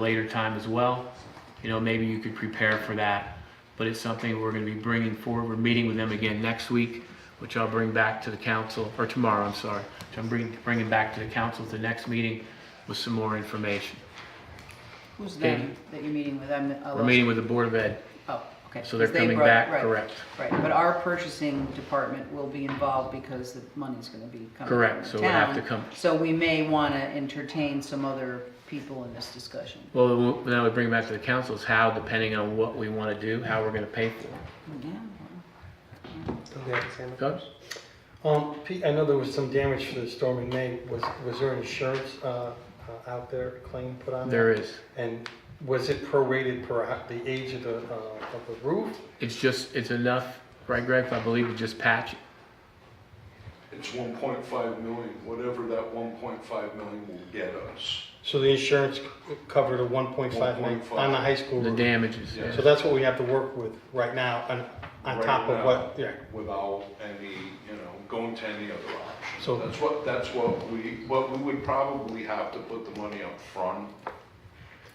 later time as well. You know, maybe you could prepare for that, but it's something we're gonna be bringing forward. We're meeting with them again next week, which I'll bring back to the council, or tomorrow, I'm sorry. Which I'm bringing, bringing back to the council at the next meeting with some more information. Who's Okay. them that you're meeting with? I'm- oh, We're meeting with the Board of Ed, Oh, okay. so they're 'Cause they coming brought- back, right, correct? Right, but our purchasing department will be involved because the money's gonna be coming from the town. Correct, so we'll have to come- So we may wanna entertain some other people in this discussion. Well, then I would bring back to the council is how, depending on what we wanna do, how we're gonna pay for it. Yeah. Okay, Sam. Gus? Um, Pete, I know there was some damage to the storm in May. Was, was there insurance, uh, uh, out there, a claim put on There there? is. And was it prorated per ho- the age of the, uh, of the roof? It's just, it's enough, right Greg, I believe, to just patch it. It's one point five million, whatever that one point five million will get us. So the insurance c- covered a one point five million 1.5. on the high school the roof? damages. Yeah. So that's what we have to work with right now, on, on Right top of now, what, yeah. Without any, you know, going to any other option. So- That's what, that's what we, what we would probably have to put the money up front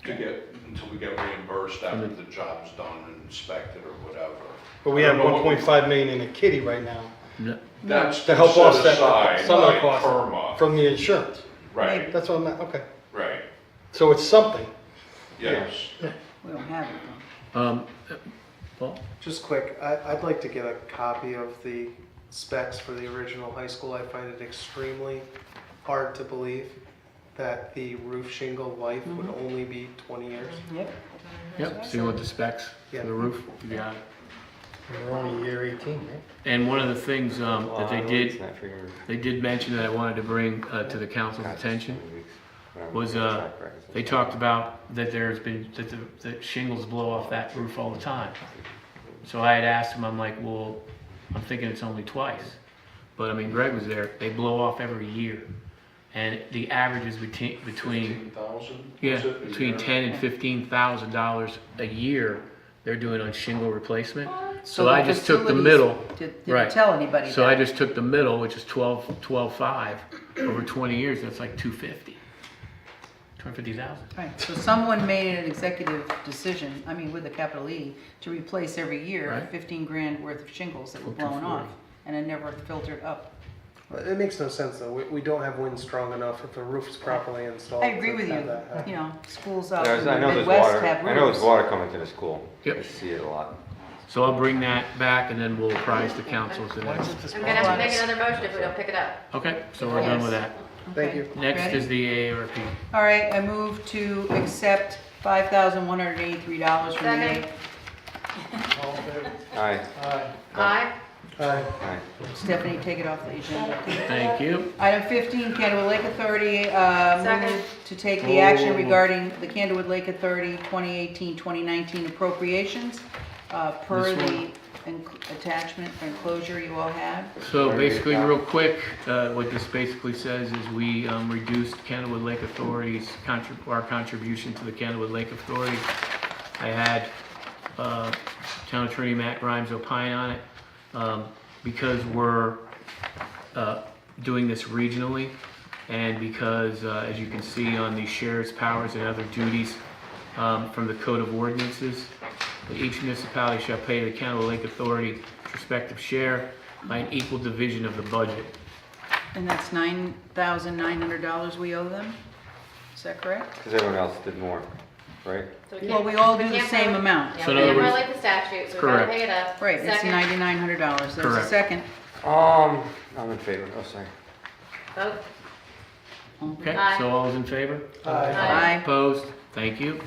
to get, until we get reimbursed Mm-hmm. after the job's done and inspected or whatever. But we I have don't know one what we- point five million in the kitty right now No, That's to help set offset aside some of by the costs PERMA. from the insurance. Right, That's what I'm, at, okay. right, So it's something. yes. We don't have it though. um, Paul? Just quick, I, I'd like to get a copy of the specs for the original high school. I find it extremely hard to believe that the roof shingle life would Mm-hmm. only be 20 years. Yep. Yep, so you want the specs for Yeah. the roof? Yeah. We're only year eighteen, right? And one of the things um, that they did, Not for your- they did mention that I wanted to bring uh, to the council's attention was, uh, they talked about that there's been, that the that shingles blow off that roof all the time. So I had asked him, I'm like, well, I'm thinking it's only twice. But I mean, Greg was there, they blow off every year. And the average is between, between Fifteen thousand? Yeah, between ten and fifteen thousand dollars a year they're doing on shingle replacement. So the I just took the facilities middle, Did, right. didn't tell anybody so I that. just took the middle, which is twelve, twelve-five, over twenty years, that's like two fifty. Two hundred fifty thousand. Right, so someone made an executive decision, I mean with a capital E, to replace every year Right. fifteen grand worth of shingles that were Up to blown 40. off and it never filtered up. It makes no sense, though. We, we don't have wind strong enough if the roof's properly installed. I agree with to you, have that happen. you know, schools out in There's, the I know there's Midwest water, have roofs. I know there's water coming to the school. Yep. I see it a lot. So I'll bring that back and then we'll apprise the council to Why is that. it this I'm gonna have to problem? make another motion if we don't pick it up. Okay, so we're done with that. Thank Okay, you. Next ready? is the AARP. All right, I move to accept five thousand one hundred eighty-three dollars from the Second. Aye, Aye. Aye. Aye. aye. Stephanie, take it off the agenda. Thank you. Item fifteen, Candlewood Lake Authority, uh, Second. move to take the action Oh. regarding the Candlewood Lake Authority 2018-2019 appropriations, uh, per This the enc- attachment or enclosure you all have. So basically, real quick, uh, what this basically says is we um, reduced Kennewood Lake Authority's, contrib- our contribution to the Kennewood Lake Authority. I had uh, Town Attorney Matt Grimes opine on it. Um, Because we're uh, doing this regionally, and because, uh, as you can see on the sheriff's powers and other duties um, from the Code of Ordinances, that each municipality shall pay the Kennewood Lake Authority its respective share by an equal division of the budget. And that's nine thousand nine hundred dollars we owe them? Is that correct? Because everyone else did more, right? So Well, can't- we all do the can't same vote. amount. Yeah, So we in other can't words- violate the statute, so we gotta Correct. pick it up. Right, it's Second. ninety-nine hundred dollars, there's a Correct. second. Um, I'm in favor, oh, sorry. Vote. Okay, Aye. so all is in favor? Aye. Aye. Opposed? Thank you.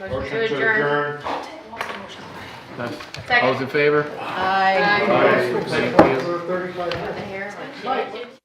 Motion to adjourn. That's- Second. All is in favor? Aye. Aye. Opposed? Thank you. The hair.